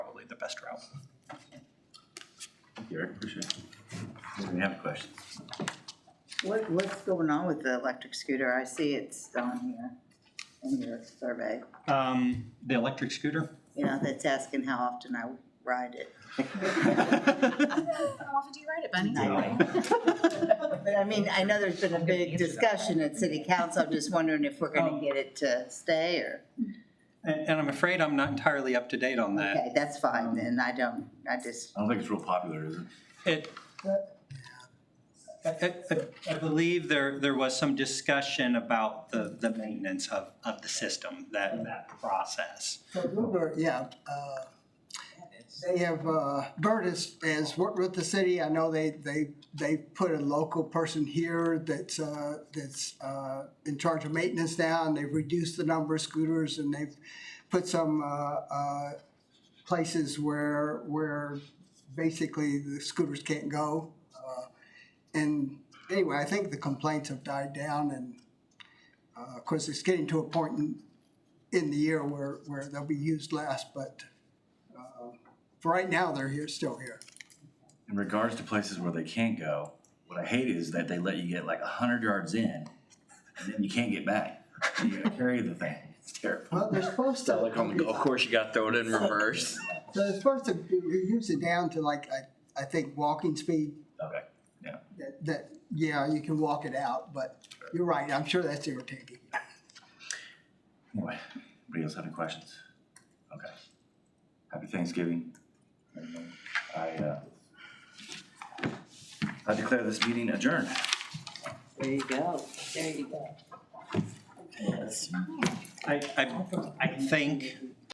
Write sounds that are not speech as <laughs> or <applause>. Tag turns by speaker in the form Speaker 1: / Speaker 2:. Speaker 1: best route.
Speaker 2: Eric, appreciate it. Does anyone have questions?
Speaker 3: What, what's going on with the electric scooter? I see it's down here in your survey.
Speaker 1: Um, the electric scooter? <laughs>
Speaker 3: You know, that's asking how often I ride it.
Speaker 4: How often do you ride it, Bunny?
Speaker 2: <laughs>
Speaker 3: No. But I mean, I know there's been a big discussion at city council. I'm just wondering if we're gonna get it to stay or,
Speaker 1: And, and I'm afraid I'm not entirely up to date on that.
Speaker 3: okay, that's fine then. I don't, I just,
Speaker 2: I don't think it's real popular, is it?
Speaker 1: It, I, I- I, I believe there, there was some discussion about the, the maintenance of, of the system, that, that process.
Speaker 5: So Bluebird, yeah, uh, they have, uh, Bert has, has worked with the city, I know they, they, they put a local person here that's, uh, that's, uh, in charge of maintenance now, and they've reduced the number of scooters, and they've put some, uh, uh, places where, where basically the scooters can't go. Uh, And anyway, I think the complaints have died down, and, uh, of course, it's getting to a point in, in the year where, where they'll be used less, but uh, for right now, they're here, still here.
Speaker 2: In regards to places where they can't go, what I hate is that they let you get like a hundred yards in, and then you can't get back. You gotta carry the thing, it's terrible.
Speaker 5: Well, they're supposed to.
Speaker 6: Like on the golf course, you got to throw it in reverse.
Speaker 5: So they're supposed to reduce it down to like, I, I think, walking speed,
Speaker 2: Okay.
Speaker 5: that, that, yeah, you can walk it out, but you're right, I'm sure that's irritating.
Speaker 2: Anyway, anybody else have any questions? Okay. Happy Thanksgiving. everyone. I, uh, I declare this meeting adjourned.
Speaker 3: there you go, there you go.
Speaker 1: I, I, I think